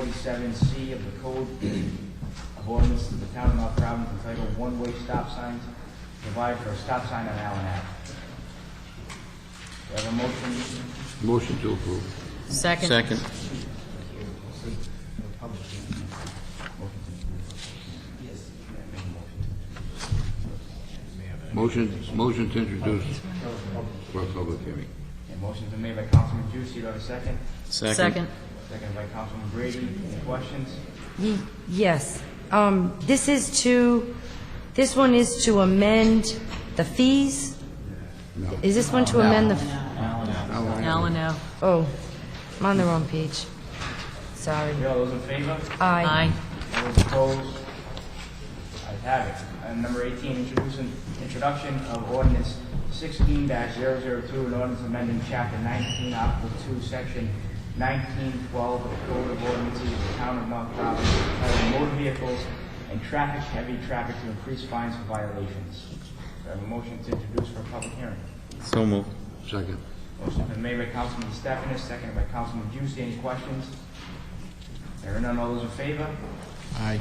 forty-seven C of the Code of Ordinance of the Town of North Providence entitled One-Way Stop Signs, provide for a stop sign on Allen Ave. Do I have a motion? Motion to approve. Second. Second. Motion, motion to introduce for a public hearing. A motion's been made by Councilman Juicy, do I have a second? Second. Second by Councilman Brady, any questions? Ye- Yes. Um, This is to, this one is to amend the fees? Is this one to amend the, f- Allen Ave. oh, I'm on the wrong page. Sorry. Okay, All those in favor? Aye. Aye. All those opposed? I have it. Item number 18, introducing, introduction of ordinance 16-002, an ordinance amending chapter 19, article 2, section 1912 of the Code of Ordinances of the Town of North Providence, entitled motor vehicles and traffic, heavy traffic to increase fines for violations. Do I have a motion to introduce for a public hearing? So moved. Second. Motion been made by Councilman Stephanus, seconded by Councilman Juicy. Any questions? There are none. All those in favor? Aye.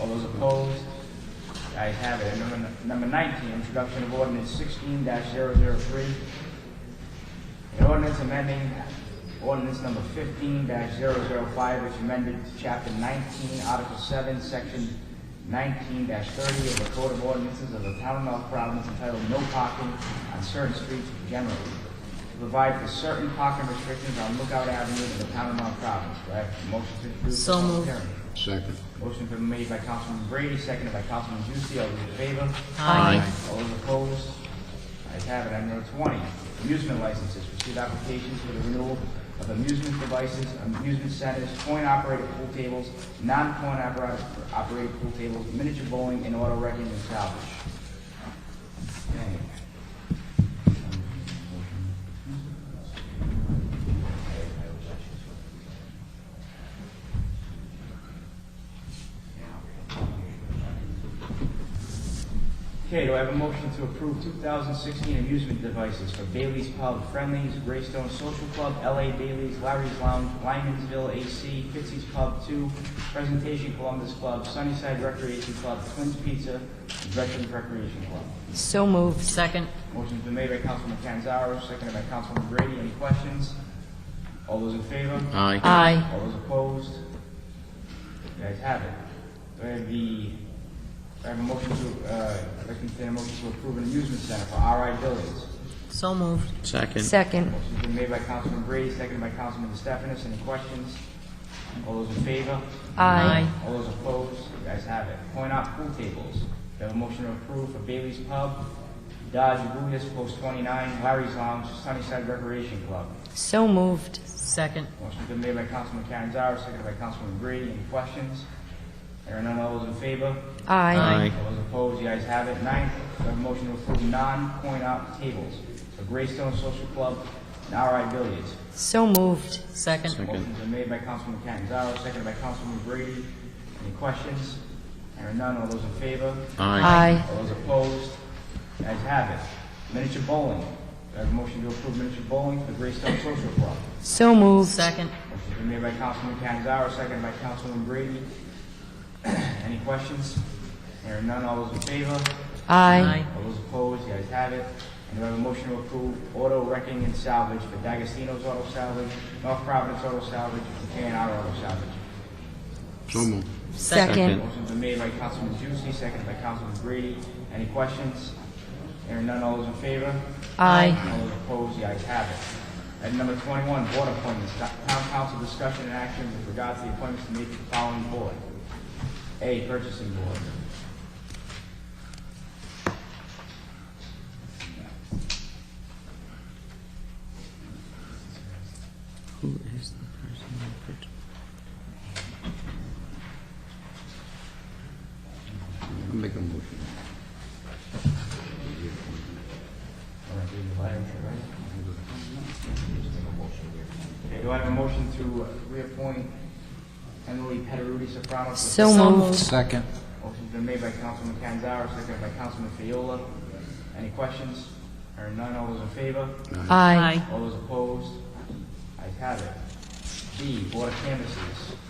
All those opposed? I have it. And number, number nineteen, introduction of ordinance sixteen 3 An ordinance amending ordinance number fifteen 5 which amended chapter nineteen, article seven, section nineteen thirty of the Code of Ordinances of the Town of North Providence entitled No Parking on Certain Streets Generally. to Provide for certain parking restrictions on Lookout Avenue in the Town of North Providence. Do I have a motion to introduce? So the public moved. hearing? Second. Motion been made by Councilman Brady, seconded by Councilman Juicy. All those in favor? Aye. All those opposed? Ayes have it. Item number twenty, amusement licenses. Receive applications for the renewal of amusement devices, amusement centers, coin-operated pool tables, non-coin-operated pool tables, miniature bowling, and auto wrecking and salvage. Okay. Okay, do I have a motion to approve 2016 amusement devices for Bailey's Pub, Friendly's, Greystone Social Club, LA Bailey's, Larry's Lounge, Lymansville AC, Pittsey's Pub 2, Presentation Columbus Club, Sunnyside Recreation Club, Twins Pizza, and Veterans Recreation Club? So moved. Second. Motion's been made by Councilman Canzaro, seconded by Councilman Brady. Any questions? All those in favor? Aye. Aye. All those opposed? The ayes have it. Do I have the, do I have a motion to, uh, I'd like to entertain a motion to approve an amusement center for RI Buildings? So moved. Second. Second. Motion's been made by Councilman Brady, seconded by Councilman DeStefanis. Any questions? All those in favor? Aye. All those opposed? The ayes have it. Point out pool tables. Do I have a motion to approve for Bailey's Pub, Dodge Buddhist Post 29, Larry's Lounge, Sunnyside Recreation Club? So moved. Second. Motion's been made by Councilman Catanzaro, seconded by Councilman Brady. Any questions? There are none. All those in favor? Aye. Aye. All those opposed? The ayes have it. Ninth, do I have a motion to approve non-coin op tables for Greystone Social Club and RI Billiards? So moved. Second. Motion's been made by Councilman Catanzaro, seconded by Councilman Brady. Any questions? There are none. All those in favor? Aye. Aye. All those opposed? The ayes have it. Miniature bowling. Do I have a motion to approve miniature bowling for Greystone Social Club? So moved. Second. Motion's been made by Councilman Canzaro, seconded by Councilman Brady. Any questions? Hearing none, all those in favor? Aye. All those opposed, the ayes have it. And do I have a motion to approve auto wrecking and salvage for D'Agostino's Auto Salvage, North Providence Auto Salvage, and K&R Auto Salvage? So moved. Second. Motion's been made by Councilman Juicy, seconded by Councilman Brady. Any questions? Hearing none, all those in favor? Aye. All those opposed, the ayes have it. Item number 21, board appointments. Town council discussion and action with regards to the appointments to meet the following board. A, purchasing board. Who is the person who put- I'll Make a motion. Okay, do I have a motion to reappoint Emily Pederuti Soprano? to the- So moved. Second. Motion's been made by Councilman Canzaro, seconded by Councilman Fiola. Any questions? Hearing none, all those in favor? Aye. Aye. All those opposed? Ayes have it. B, Board of Canvassers.